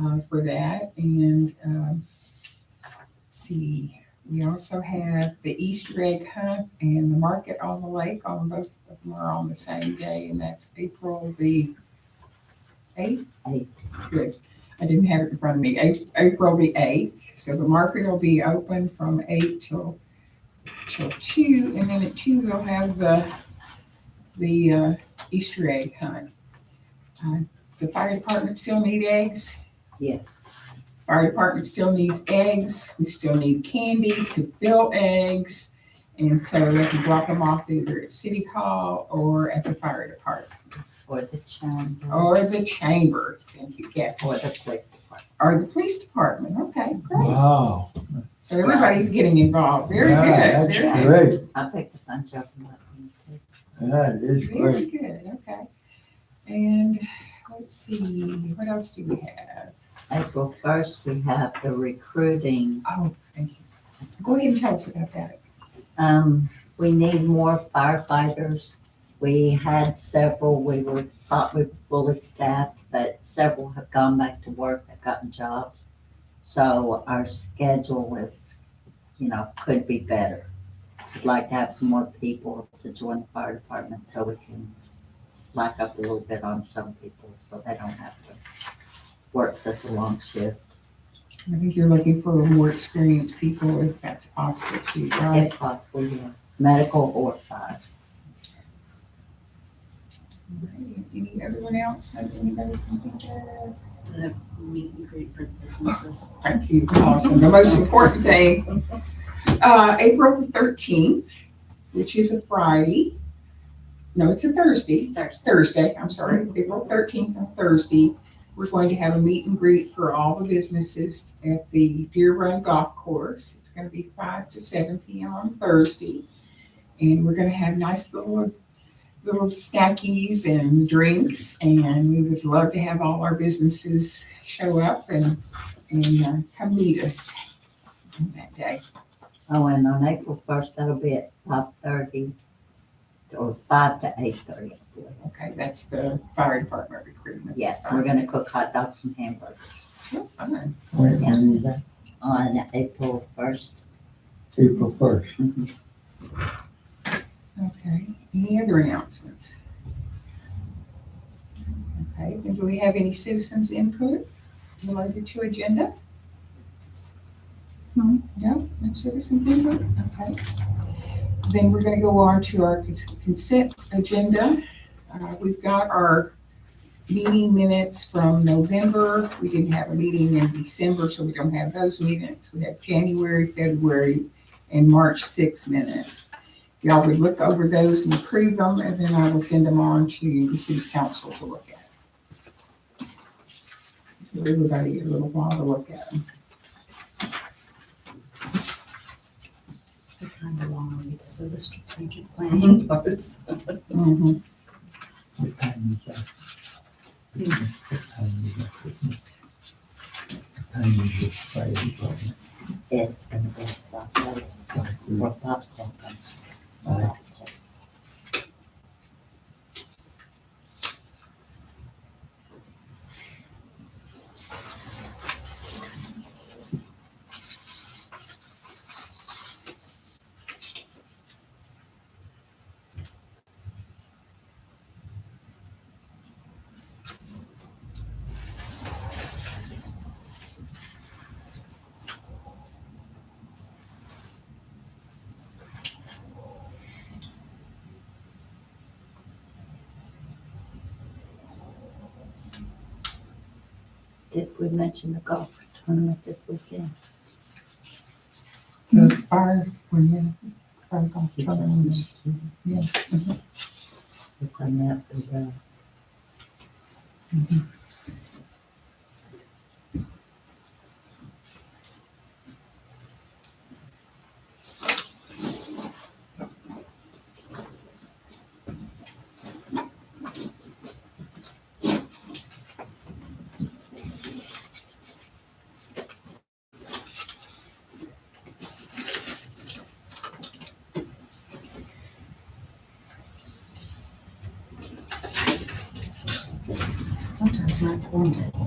uh, for that. And um, let's see, we also have the Easter egg hunt and the market on the lake on both of them are on the same day, and that's April the eighth. Eighth. Good. I didn't have it in front of me. A- April the eighth. So the market will be open from eight till till two, and then at two we'll have the the uh, Easter egg hunt. Uh, the fire department still need eggs. Yes. Fire department still needs eggs. We still need candy to fill eggs. And so they can drop them off either at City Hall or at the fire department Or the chamber, or the chamber. Thank you, Kathy. or the police department. Or the police department. Okay, great. Wow, So everybody's getting involved. Very Yeah, good. that's Very great. I picked a bunch of them up. from the police. Yeah, it is Very great. good. Okay. And let's see, what else do we have? April first, we have the recruiting. Oh, thank you. Go ahead and tell us about that. Um, we need more firefighters. We had several, we were, thought we were fully staffed, but several have gone back to work, have gotten jobs. So our schedule is, you know, could be better. We'd like to have some more people to join the fire department so we can slack up a little bit on some people so they don't have to work such a long shift. I think you're looking for more experienced people if that's possible too, right? If possible, yeah. medical or fire. Any other one else? that Anybody can think of? the meet and greet for businesses. Thank you, awesome. The most important thing, uh, April the thirteenth, which is a Friday. No, it's a Thursday. Thursday. Thursday, I'm sorry, April thirteenth on Thursday, we're going to have a meet and greet for all the businesses at the Deer Run Golf Course. It's gonna be five to seven P M on Thursday. And we're gonna have nice little, little snackies and drinks, and we would love to have all our businesses show up and, and uh, come meet us on that day. Oh, and on April first, that'll be at five thirty, or five to eight thirty, I believe. Okay, that's the fire department recruitment. Yes, we're gonna cook hot dogs and hamburgers Oh, fun. Wait, maybe on April first. April first. Okay, any other announcements? Okay, then do we have any citizens input related to agenda? No. No, no citizens input, okay. Then we're gonna go on to our cons- consent agenda. Uh, we've got our meeting minutes from November. We didn't have a meeting in December, so we don't have those minutes. We have January, February, and March six minutes y'all would look over those and approve them, and then I will send them on to the city council to look at. Give everybody a little while to look at them. It's kind of long because of the strategic planning parts. Mhm. What time is that? Hmm. What time is that? What time is your fire department? It's gonna be at five thirty, or five o'clock. I'm sorry. Aye. Did we mention the golf tournament this weekend? The fire, well, yeah, fire golf You just tournaments. mentioned it. Yeah. It's on that, uh, Sometimes my form is